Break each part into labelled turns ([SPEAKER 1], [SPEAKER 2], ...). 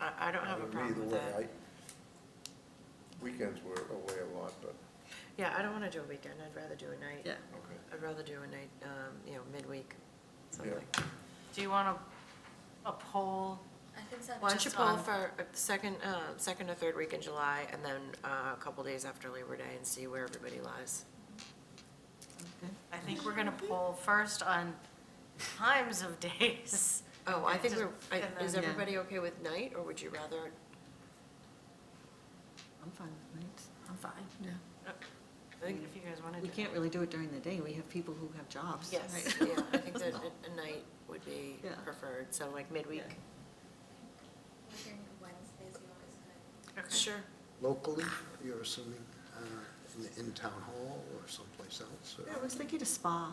[SPEAKER 1] I don't have a problem with
[SPEAKER 2] Either way,
[SPEAKER 1] that.
[SPEAKER 2] I- Weekends were away a lot, but,
[SPEAKER 1] Yeah, I don't want to do a weekend, I'd rather do a night.
[SPEAKER 3] Yeah.
[SPEAKER 2] okay.
[SPEAKER 1] I'd rather do a night, um, you know, midweek, something.
[SPEAKER 2] Yeah.
[SPEAKER 4] Do you want a, a poll?
[SPEAKER 5] I think so.
[SPEAKER 1] Why don't you
[SPEAKER 4] Just
[SPEAKER 1] pull
[SPEAKER 4] on-
[SPEAKER 1] for a second, uh, second or third week in July, and then uh, a couple days after Labor Day, and see where everybody lies?
[SPEAKER 4] I think we're gonna poll first on times of days.
[SPEAKER 1] Oh, I think we're, I-
[SPEAKER 4] And
[SPEAKER 1] is
[SPEAKER 4] then-
[SPEAKER 1] everybody okay with night, or would you rather?
[SPEAKER 3] I'm fine with nights.
[SPEAKER 5] I'm fine.
[SPEAKER 3] Yeah.
[SPEAKER 4] I think if you guys wanna do.
[SPEAKER 3] We
[SPEAKER 4] it.
[SPEAKER 3] can't really do it during the day. We have people who have jobs.
[SPEAKER 1] Yes,
[SPEAKER 3] right?
[SPEAKER 1] yeah, I think that a a night would be
[SPEAKER 3] Yeah.
[SPEAKER 1] preferred, so like midweek.
[SPEAKER 3] Yeah.
[SPEAKER 5] I think Wednesday's always good.
[SPEAKER 4] Okay.
[SPEAKER 1] Sure.
[SPEAKER 6] locally, you're assuming, uh, in the- in town hall or someplace else,
[SPEAKER 3] Yeah, I
[SPEAKER 6] or
[SPEAKER 3] was thinking a spa.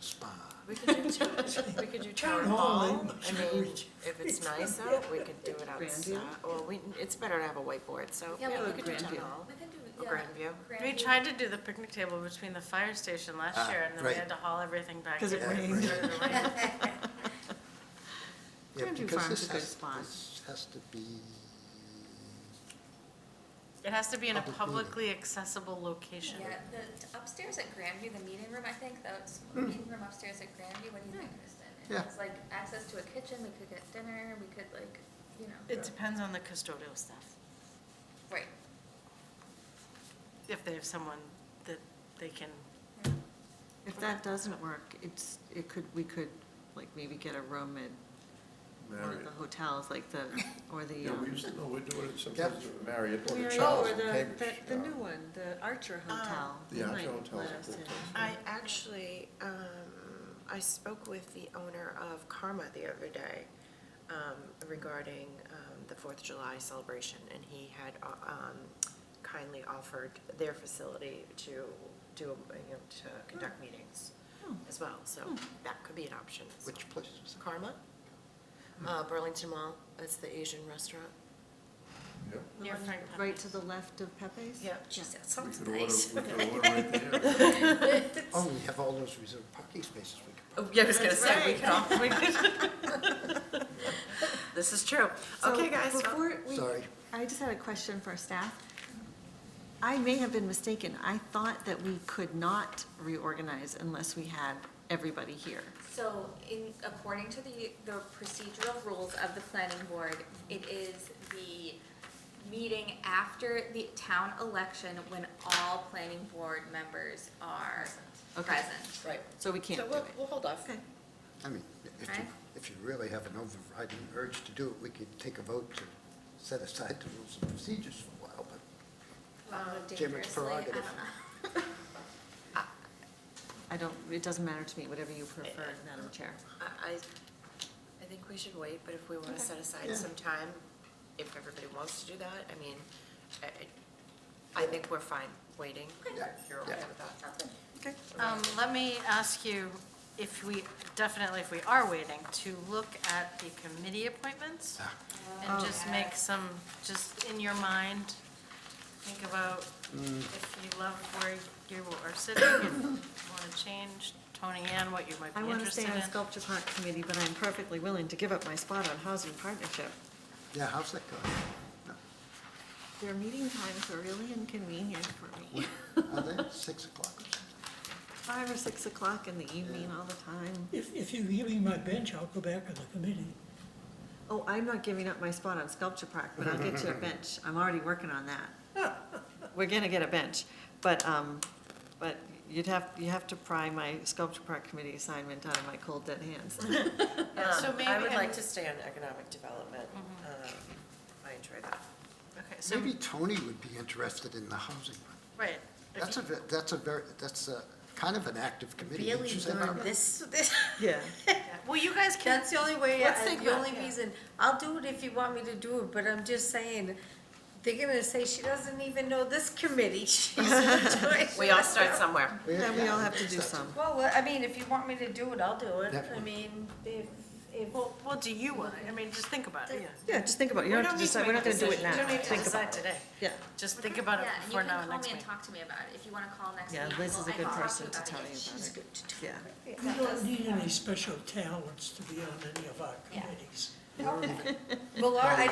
[SPEAKER 6] spa?
[SPEAKER 1] We could do, two- we could do town hall, I mean, if it's nice out, we could do it outside,
[SPEAKER 3] Grandview?
[SPEAKER 1] well, we, it's better to have a whiteboard, so,
[SPEAKER 5] Yeah,
[SPEAKER 1] yeah,
[SPEAKER 5] we
[SPEAKER 1] we
[SPEAKER 5] could
[SPEAKER 1] could do
[SPEAKER 3] do
[SPEAKER 1] town
[SPEAKER 3] Grandview.
[SPEAKER 1] hall.
[SPEAKER 5] We can do,
[SPEAKER 1] Or
[SPEAKER 5] yeah.
[SPEAKER 1] Grandview.
[SPEAKER 4] We tried to do the picnic table between the fire station last
[SPEAKER 6] Ah,
[SPEAKER 4] year, and then we
[SPEAKER 6] right.
[SPEAKER 4] had to haul everything back.
[SPEAKER 3] 'Cause it
[SPEAKER 4] in.
[SPEAKER 3] rained.
[SPEAKER 4] Because of the rain.
[SPEAKER 6] Yeah,
[SPEAKER 3] Grandview
[SPEAKER 6] because
[SPEAKER 3] Farm's
[SPEAKER 6] this
[SPEAKER 3] a good
[SPEAKER 6] has-
[SPEAKER 3] spot.
[SPEAKER 6] This has to be,
[SPEAKER 4] It has to be in a
[SPEAKER 6] Public meeting.
[SPEAKER 4] publicly accessible location.
[SPEAKER 5] Yeah, the upstairs at Grandview, the meeting room, I think, that's,
[SPEAKER 1] Hmm.
[SPEAKER 5] meeting room upstairs at Grandview, what do you think, Kristen? It
[SPEAKER 6] Yeah.
[SPEAKER 5] has like access to a kitchen, we could get dinner, we could like, you know,
[SPEAKER 4] It depends on the custodial staff,
[SPEAKER 5] right.
[SPEAKER 4] if they have someone that they can,
[SPEAKER 5] yeah.
[SPEAKER 3] If that doesn't work, it's, it could, we could, like, maybe get a room at one of
[SPEAKER 2] Marriott.
[SPEAKER 3] the hotels, like the, or the,
[SPEAKER 2] Yeah, we
[SPEAKER 3] um,
[SPEAKER 2] used to, no, we're doing it sometimes
[SPEAKER 6] Yep.
[SPEAKER 2] at Marriott or the
[SPEAKER 3] Marriott
[SPEAKER 2] Charles
[SPEAKER 3] or
[SPEAKER 2] in
[SPEAKER 3] the,
[SPEAKER 2] Cambridge. uh,
[SPEAKER 3] that- the
[SPEAKER 2] yeah.
[SPEAKER 3] new one, the Archer Hotel.
[SPEAKER 2] The
[SPEAKER 3] They
[SPEAKER 2] Archer
[SPEAKER 3] might
[SPEAKER 2] Hotel's
[SPEAKER 3] let
[SPEAKER 2] a
[SPEAKER 3] us
[SPEAKER 2] good
[SPEAKER 3] in.
[SPEAKER 2] place.
[SPEAKER 1] I actually, um, I spoke with the owner of Karma the other day, um, regarding, um, the Fourth of July celebration, and he had, uh, um, kindly offered their facility to do, you know, to conduct meetings
[SPEAKER 3] Hmm.
[SPEAKER 1] as well, so that could be an option. as well.
[SPEAKER 6] which place was that?
[SPEAKER 1] Karma, uh, Burlington Mall, that's the Asian restaurant.
[SPEAKER 2] Yeah.
[SPEAKER 3] The
[SPEAKER 4] Near
[SPEAKER 3] one
[SPEAKER 4] Frank
[SPEAKER 3] Right
[SPEAKER 4] Pepe's.
[SPEAKER 3] to the left of Pepe's?
[SPEAKER 5] Jeez, that
[SPEAKER 2] We
[SPEAKER 5] sounds
[SPEAKER 2] could order,
[SPEAKER 5] nice.
[SPEAKER 2] we could order right there.
[SPEAKER 6] Oh, we have all those reserved parking spaces we could park.
[SPEAKER 1] Oh, yeah, I was gonna
[SPEAKER 3] That's
[SPEAKER 1] say, we could all, we could. This is true.
[SPEAKER 3] So
[SPEAKER 1] Okay, guys, well-
[SPEAKER 3] Before we,
[SPEAKER 6] Sorry.
[SPEAKER 3] I just had a question for staff. I may have been mistaken. I thought that we could not reorganize unless we had everybody here.
[SPEAKER 5] So in, according to the, the procedural rules of the planning board, it is the meeting after the town election when all planning board members are
[SPEAKER 3] Okay.
[SPEAKER 5] present.
[SPEAKER 1] right.
[SPEAKER 3] So we
[SPEAKER 1] So
[SPEAKER 3] can't do
[SPEAKER 1] we'll,
[SPEAKER 3] it.
[SPEAKER 1] we'll hold off.
[SPEAKER 3] Okay.
[SPEAKER 6] I mean, if you,
[SPEAKER 5] Okay.
[SPEAKER 6] if you really have an overriding urge to do it, we could take a vote to set aside the rules and procedures for a while, but
[SPEAKER 5] Although
[SPEAKER 6] Chairman's
[SPEAKER 5] Um, dangerously, I don't
[SPEAKER 6] prerogative.
[SPEAKER 5] know.
[SPEAKER 3] I don't, it doesn't matter to me, whatever you prefer, Madam Chair.
[SPEAKER 1] I, I I think we should wait, but if we wanna
[SPEAKER 3] Okay.
[SPEAKER 1] set aside
[SPEAKER 6] Yeah.
[SPEAKER 1] some time, if everybody wants to do that, I mean, I, I- I think we're fine waiting.
[SPEAKER 6] Yeah.
[SPEAKER 1] If You're okay
[SPEAKER 6] Yeah.
[SPEAKER 1] with that?
[SPEAKER 3] Okay.
[SPEAKER 4] Um, let me ask you if we, definitely if we are waiting, to look at the committee appointments and just make some, just in your mind, think about if you love where you are sitting, if you want to change, toning in, what you might
[SPEAKER 3] I
[SPEAKER 4] be
[SPEAKER 3] want to
[SPEAKER 4] interested
[SPEAKER 3] stay
[SPEAKER 4] in.
[SPEAKER 3] on Sculpture Park Committee, but I'm perfectly willing to give up my spot on Housing Partnership.
[SPEAKER 6] yeah, how's that going?
[SPEAKER 3] Their meeting times are really inconvenient for me.
[SPEAKER 6] Are they six o'clock or something?
[SPEAKER 3] Five or six o'clock in the evening all the time.
[SPEAKER 7] If, if you give me my bench, I'll go back on the committee.
[SPEAKER 3] Oh, I'm not giving up my spot on Sculpture Park, but I'll get you a bench. I'm already working on that. We're gonna get a bench, but, um, but you'd have, you have to pry my Sculpture Park Committee assignment out of my cold dead hands.
[SPEAKER 4] Yeah, so
[SPEAKER 1] Um, I
[SPEAKER 4] maybe-
[SPEAKER 1] would like
[SPEAKER 4] and-
[SPEAKER 1] to stay on economic development. Um, I enjoy that.
[SPEAKER 4] Okay, so,
[SPEAKER 6] Maybe Tony would be interested in the housing.
[SPEAKER 4] right. if
[SPEAKER 6] That's a,
[SPEAKER 4] you-
[SPEAKER 6] ve- that's a very, that's a, kind of an active committee, would you say, Barbara?
[SPEAKER 8] This, this,
[SPEAKER 3] Yeah.
[SPEAKER 4] Well, you guys can,
[SPEAKER 8] that's the only way,
[SPEAKER 1] Let's
[SPEAKER 8] I-
[SPEAKER 1] think
[SPEAKER 8] the
[SPEAKER 1] about
[SPEAKER 8] only
[SPEAKER 1] it, yeah.
[SPEAKER 8] reason, I'll do it if you want me to do it, but I'm just saying, they're gonna say she doesn't even know this committee she's doing.
[SPEAKER 1] We all start somewhere.
[SPEAKER 3] Yeah, we all have to do some.
[SPEAKER 8] Well, I mean, if you want me to do it, I'll do it,
[SPEAKER 6] That
[SPEAKER 8] I
[SPEAKER 6] one.
[SPEAKER 8] mean, if, if,
[SPEAKER 4] well, what do you want? I mean, just think about it, yeah.
[SPEAKER 3] Yeah, just think about it. You don't have to decide, we're not gonna do it now.
[SPEAKER 4] You don't need to
[SPEAKER 3] Think about
[SPEAKER 4] decide
[SPEAKER 3] it.
[SPEAKER 4] today.
[SPEAKER 3] Yeah.
[SPEAKER 4] Just think about it
[SPEAKER 5] Yeah, and you
[SPEAKER 4] before now
[SPEAKER 5] can
[SPEAKER 4] and
[SPEAKER 5] call
[SPEAKER 4] next
[SPEAKER 5] me and
[SPEAKER 4] meeting.
[SPEAKER 5] talk to me about it, if you wanna call next week.
[SPEAKER 3] Yeah, Liz
[SPEAKER 5] well,
[SPEAKER 3] is a
[SPEAKER 5] I
[SPEAKER 3] good
[SPEAKER 5] can talk
[SPEAKER 3] person to
[SPEAKER 5] about
[SPEAKER 3] tell
[SPEAKER 5] it.
[SPEAKER 3] you about
[SPEAKER 8] she's
[SPEAKER 3] it.
[SPEAKER 8] good to
[SPEAKER 3] Yeah.
[SPEAKER 7] We don't
[SPEAKER 8] do.
[SPEAKER 7] need any special talents to be on any of our
[SPEAKER 5] Yeah.
[SPEAKER 7] committees.
[SPEAKER 8] Well, Laura, I